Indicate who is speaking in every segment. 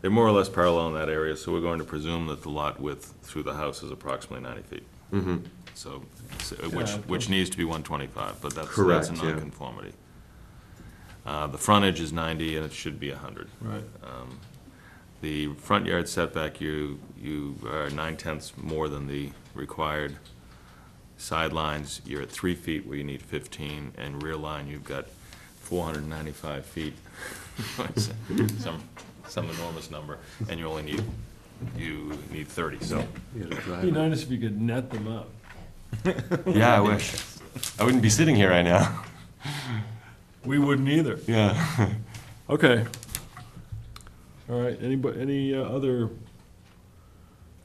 Speaker 1: They're more or less parallel in that area, so we're going to presume that the lot width through the house is approximately 90 feet.
Speaker 2: Mm-hmm.
Speaker 1: So, so- which,
Speaker 3: Yeah.
Speaker 1: which needs to be 125, but that's, that's
Speaker 2: Correct,
Speaker 1: a
Speaker 2: yeah.
Speaker 1: nonconformity. Uh, The frontage is 90, and it should be 100.
Speaker 3: Right.
Speaker 1: The front yard setback, you, you are nine tenths more than the required sidelines. You're at three feet where you need fifteen, and rear line, you've got four hundred and ninety-five feet. Some, some enormous number, and you only need, you need thirty, so.
Speaker 2: You gotta drive
Speaker 3: Be
Speaker 2: it.
Speaker 3: nice if you could net them up.
Speaker 2: Yeah, I wish. I wouldn't be sitting here right now.
Speaker 3: We wouldn't either.
Speaker 2: Yeah.
Speaker 3: Okay. All right, anybody, any uh, other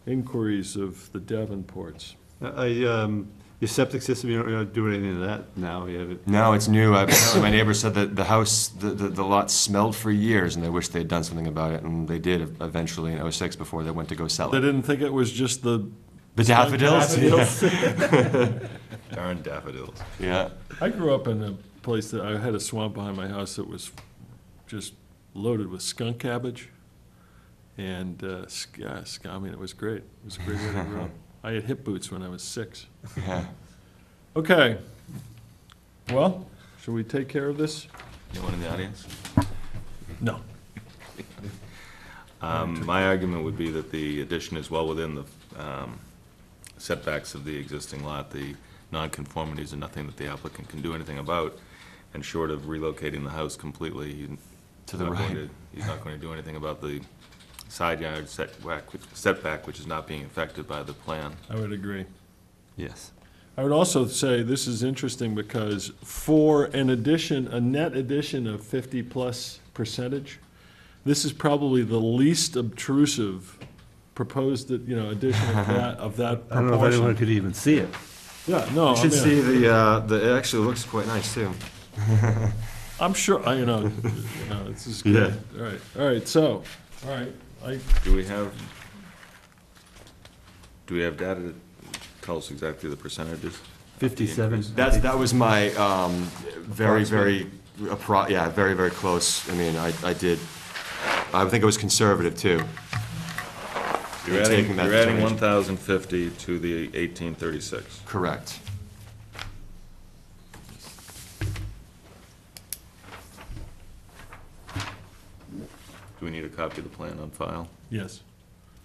Speaker 3: inquiries of the Davenports?
Speaker 4: I, um, your septic system, you don't, you don't do anything to that now, you have it,
Speaker 2: No, it's new. Apparently, my neighbor said that the house, the, the, the lot smelled for years, and they wished they'd done something about it, and they did eventually in '06 before they went to go sell
Speaker 3: They
Speaker 2: it.
Speaker 3: didn't think it was just the.
Speaker 2: The daffodils?
Speaker 3: Daffodils.
Speaker 1: Darn daffodils.
Speaker 2: Yeah.
Speaker 3: I grew up in a place that, I had a swamp behind my house that was just loaded with skunk cabbage. And, uh, sk- yeah, sk- I mean, it was great. It was a great way to grow up. I had hip boots when I was six.
Speaker 2: Yeah.
Speaker 3: Okay. Well, should we take care of this?
Speaker 1: Anyone in the audience?
Speaker 3: No.
Speaker 1: Um, My argument would be that the addition is well within the um, setbacks of the existing lot. The nonconformities are nothing that the applicant can do anything about, and short of relocating the house completely, he's
Speaker 2: To the
Speaker 1: not going
Speaker 2: right.
Speaker 1: to, he's not going to do anything about the side yard setback, setback, which is not being affected by the plan.
Speaker 3: I would agree.
Speaker 2: Yes.
Speaker 3: I would also say this is interesting because for an addition, a net addition of fifty-plus percentage, this is probably the least obtrusive proposed, that you know, addition of that, of that
Speaker 4: I don't know if anyone
Speaker 3: proportion.
Speaker 4: could even see it.
Speaker 3: Yeah, no, I
Speaker 2: Should see
Speaker 3: mean,
Speaker 2: the, uh, the, it actually looks quite nice, too.
Speaker 3: I'm sure, I, you know, you know, this is
Speaker 2: Yeah.
Speaker 3: good. All right, all right, so, all right, I,
Speaker 1: Do we have, do we have data that tells us exactly the percentages?
Speaker 4: Fifty-seven.
Speaker 2: That's, that was my, um, very, very, appro- yeah, very, very close. I mean, I, I did, I think it was conservative, too.
Speaker 1: You're
Speaker 2: You're
Speaker 1: adding,
Speaker 2: taking that
Speaker 1: you're adding
Speaker 2: determination.
Speaker 1: 1,050 to the 1836.
Speaker 2: Correct.
Speaker 1: Do we need a copy of the plan on file?
Speaker 3: yes.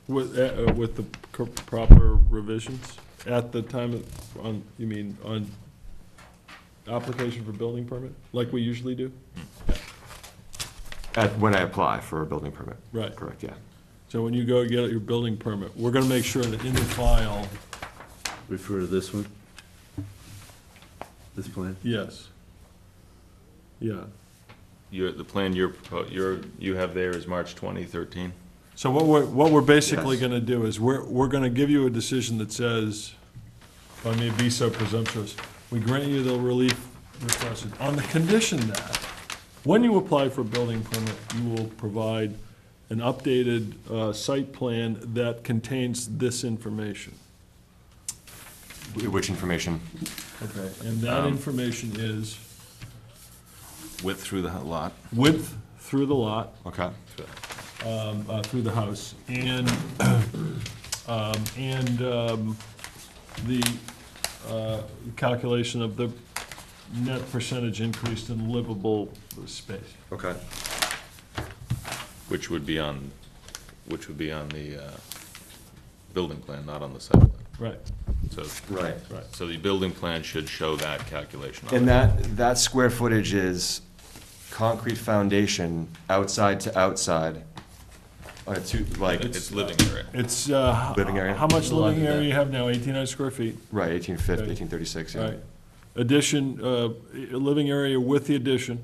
Speaker 3: With, uh, uh, with the co- proper revisions at the time of, on, you mean, on application for building permit, like we usually do?
Speaker 2: At, when I apply for a building permit.
Speaker 3: Right.
Speaker 2: Correct, yeah.
Speaker 3: So when you go get your building permit, we're gonna make sure that in the file,
Speaker 4: Refer to this one. This plan.
Speaker 3: yes. Yeah,
Speaker 1: Your, the plan you're, propo- you're, you have there is March 2013?
Speaker 3: so what we're, what we're basically
Speaker 2: Yes.
Speaker 3: gonna do is, we're, we're gonna give you a decision that says, if I may be so presumptuous, we grant you the relief requested, on the condition that, when you apply for a building permit, you will provide an updated, uh, site plan that contains this information.
Speaker 2: Wh- Which information?
Speaker 3: Okay. And that information is
Speaker 1: Width through the lot?
Speaker 3: width through the lot,
Speaker 2: Okay.
Speaker 3: uh, through the house, and, um, and um, the uh, calculation of the net percentage increase in livable space.
Speaker 2: Okay.
Speaker 1: Which would be on, which would be on the uh, building plan, not on the site plan.
Speaker 3: Right,
Speaker 1: So,
Speaker 2: Right.
Speaker 3: right.
Speaker 1: so the building plan should show that calculation. on
Speaker 2: And
Speaker 1: it.
Speaker 2: that, that square footage is concrete foundation, outside to outside, on a two, like,
Speaker 1: It's living area.
Speaker 3: It's, uh,
Speaker 2: Living area?
Speaker 3: how much living area
Speaker 2: Yeah.
Speaker 3: you have now, 1,800 square feet,
Speaker 2: right, eighteen fifty, eighteen thirty-six, yeah.
Speaker 3: right? Addition, uh, i- living area with the addition,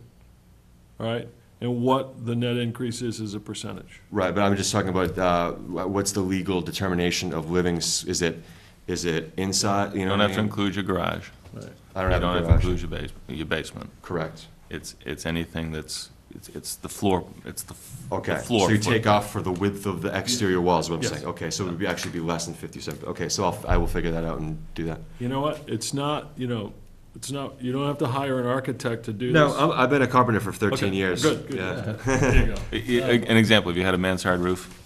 Speaker 3: all right? And what the net increase is as a percentage.
Speaker 2: Right, but I'm just talking about, uh, wha- what's the legal determination of living, s- is it, is it inside, you
Speaker 1: You
Speaker 2: know
Speaker 1: don't
Speaker 2: what I
Speaker 1: have to
Speaker 2: mean?
Speaker 1: include your garage.
Speaker 3: Right.
Speaker 1: You
Speaker 2: I don't have a
Speaker 1: don't have to
Speaker 2: garage,
Speaker 1: include your base, your basement.
Speaker 2: correct.
Speaker 1: It's, it's anything that's, it's, it's the floor, it's the f- the
Speaker 2: Okay,
Speaker 1: floor.
Speaker 2: so you
Speaker 1: foot-
Speaker 2: take off for the width of the exterior walls, what I'm
Speaker 3: Yes.
Speaker 2: saying, okay, so it would be, actually be less than fifty-seven, okay, so I'll, I will figure that out and do that.
Speaker 3: You know what, it's not, you know, It's not, you don't have to hire an architect to do this.
Speaker 2: No, I'm- I've been a carpenter for
Speaker 3: Okay,
Speaker 2: 13 years.
Speaker 3: Good, good.
Speaker 2: Yeah.
Speaker 3: There you go.
Speaker 1: A- a- An example, if you had a mansard roof,